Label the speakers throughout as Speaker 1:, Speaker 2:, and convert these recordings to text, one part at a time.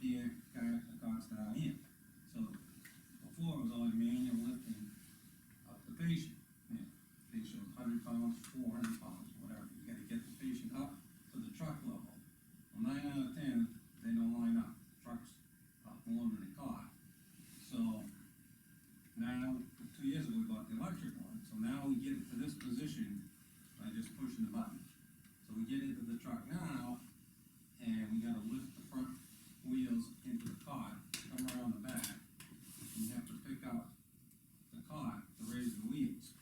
Speaker 1: here, Derek Acosta out here. So before it was all manual lifting of the patient. Yeah, Patient was hundred pounds, four hundred pounds, whatever, you gotta get the patient up to the truck level. Well, Nine out of ten, they don't line up, trucks are loaded in a car. So now, two years ago, we bought the electric one, so now we get it to this position by just pushing the button. So we get into the truck now, and we gotta lift the front wheels into the cot, come around the back, and you have to pick up the cot to raise the wheels.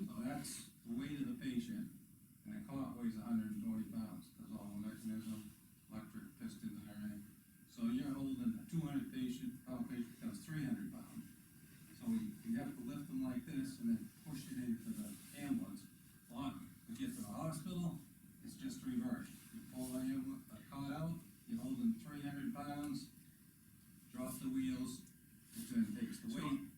Speaker 1: So that's the weight of the patient, and the cot weighs hundred and twenty pounds, cause all the mechanism, electric pistons and everything. So you're holding a two hundred patient, outpatient becomes three hundred pounds. So we, we have to lift them like this and then push it into the ambulance. Well, we get to the hospital, it's just reversed. You pull the ambulance, the cot out, you're holding three hundred pounds, drop the wheels, it then takes the
Speaker 2: So-
Speaker 1: weight.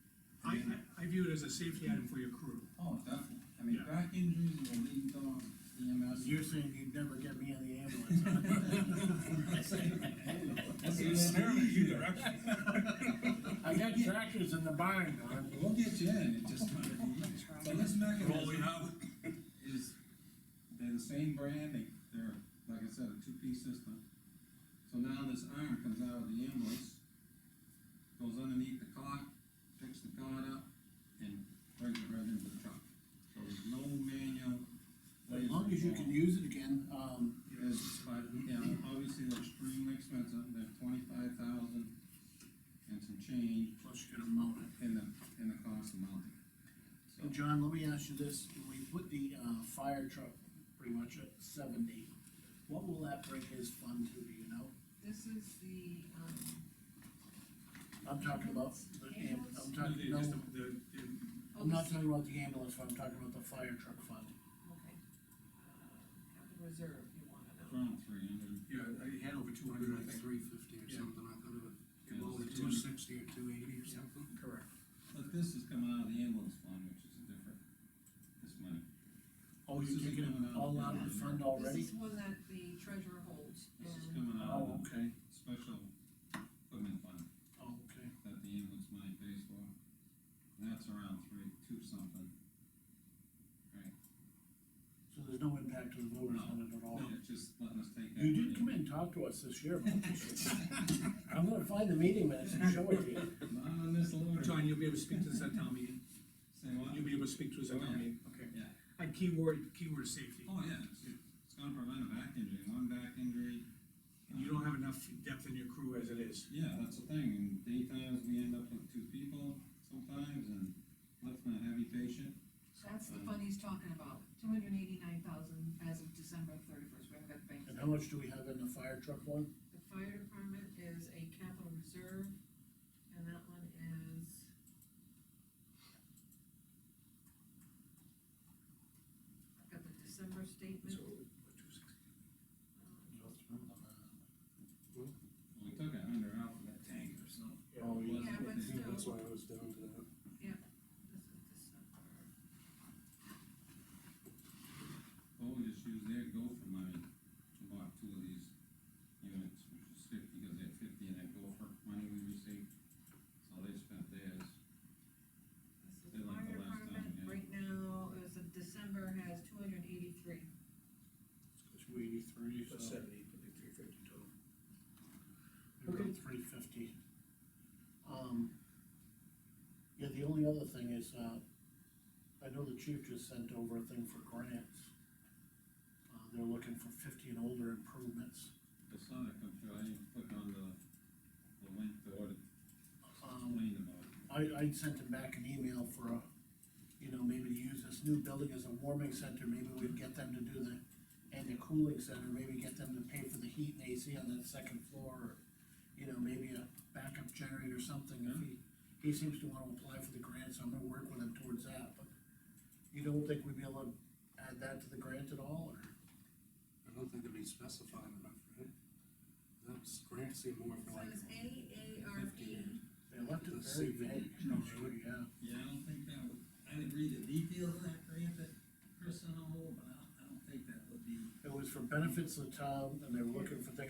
Speaker 2: I, I- I view it as a safety item for your crew.
Speaker 1: Oh, definitely. I mean,
Speaker 2: Yeah.
Speaker 1: back injuries is a leading um, E dog EMS.
Speaker 3: You're saying you'd never get me in the ambulance.
Speaker 4: That's an experiment, you directed.
Speaker 3: I got tractors in the barn, Don.
Speaker 1: We'll get you in, it just might be easier. But this mechanism
Speaker 4: out.
Speaker 1: is, they're the same brand, they, they're, like I said, a two-piece system. So now this iron comes out of the ambulance, goes underneath the cot, picks the cot up, and brings it right into the truck. So there's no manual.
Speaker 3: As long as you can use it again, um,
Speaker 1: Yes, but, yeah, obviously they're extremely expensive, they're twenty-five thousand and some change
Speaker 3: plus you're gonna mount it.
Speaker 1: in the, in the cost of mounting.
Speaker 3: And John, let me ask you this, we put the, uh, fire truck pretty much at seventy. What will that bring his fund to, do you know?
Speaker 5: This is the, um,
Speaker 3: I'm talking about, the am- I'm talking, no,
Speaker 2: Just the- the- the-
Speaker 5: oh,
Speaker 3: I'm not
Speaker 5: this-
Speaker 3: talking about the ambulance fund, I'm talking about the fire truck fund.
Speaker 5: okay. Capital reserve, you wanna know.
Speaker 1: Around three hundred.
Speaker 2: Yeah, I had over two hundred, I
Speaker 6: Like
Speaker 2: think.
Speaker 6: three fifty or
Speaker 2: Yeah.
Speaker 6: something, I thought it was,
Speaker 1: Yeah,
Speaker 6: well,
Speaker 1: it's
Speaker 6: two sixty or two eighty or
Speaker 2: Yeah.
Speaker 6: something.
Speaker 2: Correct.
Speaker 1: But this is coming out of the ambulance fund, which is a different, this money.
Speaker 3: Oh, you're
Speaker 1: This is
Speaker 3: taking
Speaker 1: coming
Speaker 3: it
Speaker 1: out
Speaker 3: all
Speaker 1: of
Speaker 3: out of the
Speaker 1: the-
Speaker 3: fund
Speaker 5: This
Speaker 3: already?
Speaker 5: is one that the treasurer holds.
Speaker 1: This is
Speaker 5: um,
Speaker 1: coming out
Speaker 3: Oh,
Speaker 1: of the
Speaker 3: okay,
Speaker 1: special equipment fund
Speaker 3: oh, okay.
Speaker 1: that the ambulance money pays for. And that's around three, two something. Right?
Speaker 3: So there's no impact to the voters on it at all?
Speaker 1: No, it's just letting us take that.
Speaker 3: Oh. You
Speaker 1: money.
Speaker 3: did come in and talk to us this year about this. I'm gonna find the meeting minutes and show it to you.
Speaker 1: Not on this loader.
Speaker 2: John, you'll be able to speak to this at town meeting,
Speaker 1: Say what? Oh,
Speaker 2: you'll be able to speak to us at town meeting, okay?
Speaker 1: Yeah.
Speaker 2: And keyword, keyword is safety,
Speaker 1: Oh, yeah, it's, it's gonna prevent a back injury, one back injury. Uh,
Speaker 2: and you don't have enough depth in your crew as it is.
Speaker 1: Yeah, that's the thing, in daytimes, we end up with two people sometimes, and lifting a heavy patient.
Speaker 5: That's the fund he's talking about, two hundred and eighty-nine thousand as of December thirty-first, we haven't got the bank.
Speaker 3: And how much do we have in the fire truck one?
Speaker 5: The fire department is a capital reserve, and that one is. I've got the December statement. um,
Speaker 1: We took a hundred out of that tank or something.
Speaker 3: Oh, yeah.
Speaker 5: Yeah, but still, this
Speaker 6: That's why I was down to that.
Speaker 5: Um, is December.
Speaker 1: Well, we just used their gopher money to buy two of these units, which is fifty, because they had fifty in that gopher money we received. So they spent theirs.
Speaker 5: This
Speaker 1: They
Speaker 5: is
Speaker 1: like
Speaker 5: fire
Speaker 1: the last time,
Speaker 5: department,
Speaker 1: yeah.
Speaker 5: right now, as of December, has two hundred and eighty-three.
Speaker 3: Two eighty-three, so
Speaker 2: seventy, I think three fifty total.
Speaker 3: around three fifty. Um, yeah, the only other thing is, uh, I know the chief just sent over a thing for grants. Uh, they're looking for fifty and older improvements.
Speaker 1: I saw that come through, I didn't click on the, the link to what it
Speaker 3: Um,
Speaker 1: explained about. it.
Speaker 3: I, I sent him back an email for a, you know, maybe to use this new building as a warming center, maybe we'd get them to do the, and the cooling center, maybe get them to pay for the heat and AC on that second floor, or, you know, maybe a backup generator or something, if he, he seems to wanna apply for the grant, so I'm gonna work with him towards that, but you don't think we'd be able to add that to the grant at all, or?
Speaker 6: I don't think it'd be specified enough, right? That's grants seem more for
Speaker 5: So
Speaker 6: like.
Speaker 5: it's AARP,
Speaker 3: They left it
Speaker 6: The
Speaker 3: very
Speaker 6: saving.
Speaker 3: vague.
Speaker 6: No,
Speaker 3: really? Yeah.
Speaker 1: Yeah, I don't think that would, I didn't read the details of that grant that Chris sent over, but I don't, I don't think that would be
Speaker 3: It was for benefits of the town, and they were looking for things